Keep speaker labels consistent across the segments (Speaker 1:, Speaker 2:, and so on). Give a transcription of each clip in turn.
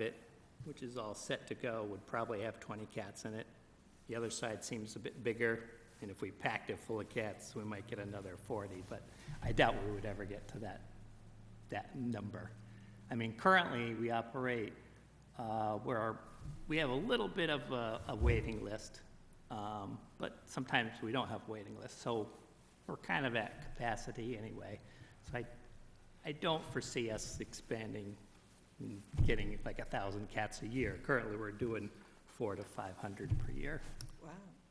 Speaker 1: it, which is all set to go, would probably have 20 cats in it. The other side seems a bit bigger, and if we packed it full of cats, we might get another 40, but I doubt we would ever get to that, that number. I mean, currently, we operate uh, where our- we have a little bit of a a waiting list, um, but sometimes we don't have waiting lists, so we're kind of at capacity anyway. So I, I don't foresee us expanding, and getting like a 1,000 cats a year. Currently, we're doing four to 500 per year.
Speaker 2: Wow.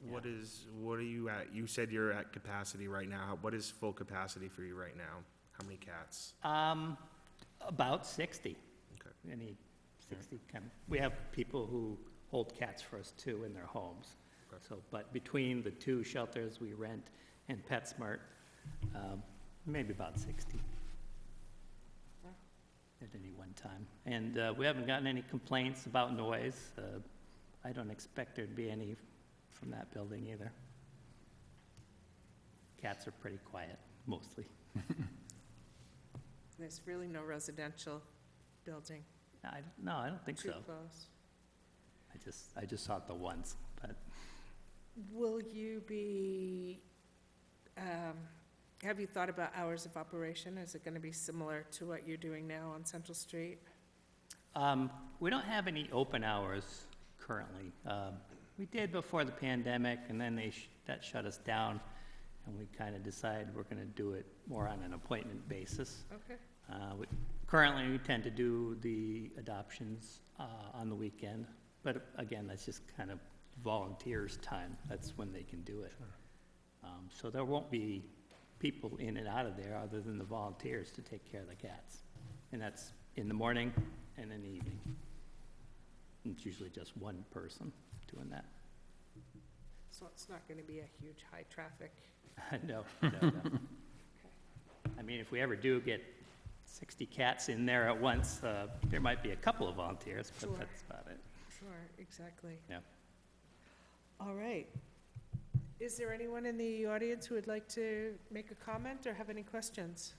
Speaker 3: What is, what are you at, you said you're at capacity right now, what is full capacity for you right now? How many cats?
Speaker 1: Um, About 60,
Speaker 3: Okay.
Speaker 1: any 60 kind of, we have people who hold cats for us too in their homes.
Speaker 3: Okay.
Speaker 1: So, but between the two shelters we rent and PetSmart, um, maybe about 60 at any one time. And uh, we haven't gotten any complaints about noise. Uh, I don't expect there'd be any from that building either. Cats are pretty quiet, mostly.
Speaker 2: There's really no residential building
Speaker 1: I, no, I don't think
Speaker 2: too
Speaker 1: so.
Speaker 2: close.
Speaker 1: I just, I just saw it the once, but
Speaker 2: Will you be, um, have you thought about hours of operation? Is it going to be similar to what you're doing now on Central Street?
Speaker 1: Um, We don't have any open hours currently. Um, We did before the pandemic, and then they, sh- that shut us down, and we kind of decided we're going to do it more on an appointment basis.
Speaker 2: Okay.
Speaker 1: Uh, we- Currently, we tend to do the adoptions uh, on the weekend, but again, that's just kind of volunteers' time. That's when they can do it. Um, So there won't be people in and out of there other than the volunteers to take care of the cats. And that's in the morning and in the evening. It's usually just one person doing that.
Speaker 2: So it's not going to be a huge high-traffic,
Speaker 1: No, no, no. I mean, if we ever do get 60 cats in there at once, uh, there might be a couple of volunteers,
Speaker 2: Sure.
Speaker 1: but that's about it.
Speaker 2: sure, exactly.
Speaker 1: Yeah.
Speaker 2: All right. Is there anyone in the audience who would like to make a comment or have any questions?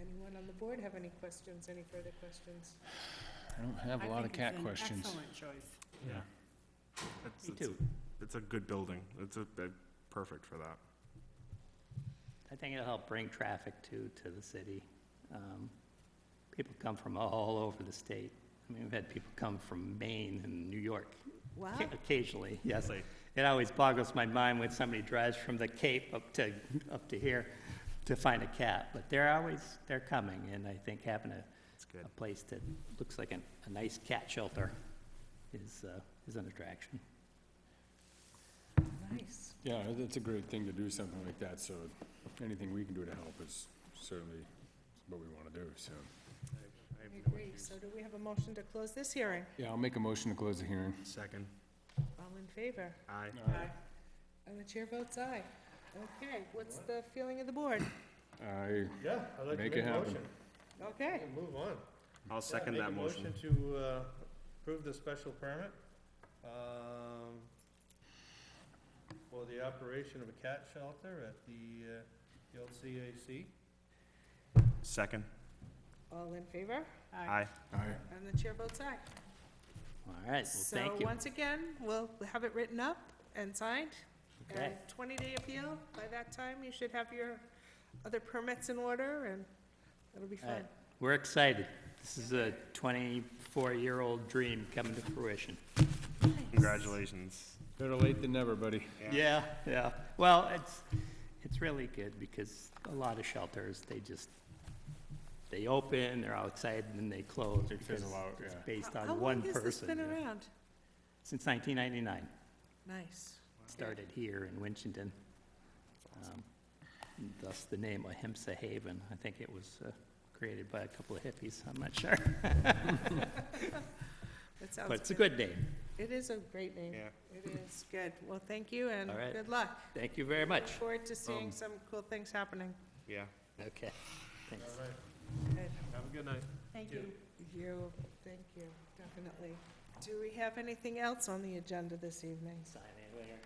Speaker 2: Anyone on the board have any questions, any further questions?
Speaker 4: I don't have a lot of cat questions.
Speaker 5: Excellent choice.
Speaker 4: Yeah.
Speaker 3: That's-
Speaker 1: Me
Speaker 3: it's-
Speaker 1: too.
Speaker 3: It's a good building, it's a, they're perfect for that.
Speaker 1: I think it'll help bring traffic too, to the city. Um, People come from all over the state. I mean, we've had people come from Maine and New York
Speaker 2: Wow,
Speaker 1: occa- occasionally, yes.
Speaker 3: Really?
Speaker 1: It always boggles my mind when somebody drives from the Cape up to, up to here to find a cat. But they're always, they're coming, and I think having a
Speaker 3: It's good.
Speaker 1: a place that looks like an, a nice cat shelter is, uh, is an attraction.
Speaker 2: nice.
Speaker 4: Yeah, it- it's a great thing to do something like that, so anything we can do to help is certainly what we want to do, so.
Speaker 3: I have
Speaker 2: I
Speaker 3: no
Speaker 2: agree.
Speaker 3: issues.
Speaker 2: So do we have a motion to close this hearing?
Speaker 4: Yeah, I'll make a motion to close the hearing.
Speaker 3: Second,
Speaker 2: All in favor?
Speaker 3: aye.
Speaker 2: Aye. And the chair votes aye. Okay, what's the feeling of the board?
Speaker 4: I,
Speaker 6: Yeah, I'd like to
Speaker 4: Make
Speaker 6: make
Speaker 4: it
Speaker 6: a
Speaker 4: happen.
Speaker 6: motion.
Speaker 2: Okay,
Speaker 6: and Move on.
Speaker 3: I'll second
Speaker 6: Yeah,
Speaker 3: that motion.
Speaker 6: Make a motion to uh, approve the special permit um, for the operation of a cat shelter at the uh, the old CAC.
Speaker 3: Second,
Speaker 2: all in favor?
Speaker 3: aye.
Speaker 4: I,
Speaker 2: And the chair votes aye.
Speaker 1: All right, well, thank
Speaker 2: So
Speaker 1: you.
Speaker 2: once again, we'll have it written up and signed.
Speaker 1: Okay.
Speaker 2: Twenty-day appeal, by that time, you should have your other permits in order, and it'll be
Speaker 1: All right,
Speaker 2: fun.
Speaker 1: We're excited. This is a 24-year-old dream coming to fruition.
Speaker 3: Congratulations.
Speaker 4: better late than never, buddy.
Speaker 1: Yeah, yeah. Well, it's, it's really good because a lot of shelters, they just, they open, they're all excited, and then they close.
Speaker 4: They
Speaker 1: because
Speaker 4: fizzle out,
Speaker 1: It's
Speaker 4: yeah.
Speaker 1: based
Speaker 2: How
Speaker 1: on
Speaker 2: long
Speaker 1: one
Speaker 2: has
Speaker 1: person.
Speaker 2: this been
Speaker 1: yeah.
Speaker 2: around?
Speaker 1: Since 1999.
Speaker 2: Nice.
Speaker 1: started here in Winchton. um, and Thus the name Ahimsa Haven. I think it was uh, created by a couple of hippies, I'm not sure. But
Speaker 2: That sounds
Speaker 1: it's a
Speaker 2: good.
Speaker 1: good name.
Speaker 2: It is a great name.
Speaker 3: Yeah.
Speaker 2: It is, good. Well, thank you, and
Speaker 1: All right.
Speaker 2: good luck.
Speaker 1: Thank you very
Speaker 2: Look
Speaker 1: much. Um,
Speaker 2: forward to seeing some cool things happening.
Speaker 3: Yeah.
Speaker 1: Okay, thanks.
Speaker 6: All right,
Speaker 2: Good.
Speaker 6: have a good night.
Speaker 5: Thank you.
Speaker 2: You, thank you, definitely. Do we have anything else on the agenda this evening?
Speaker 1: Sign in Oh, later.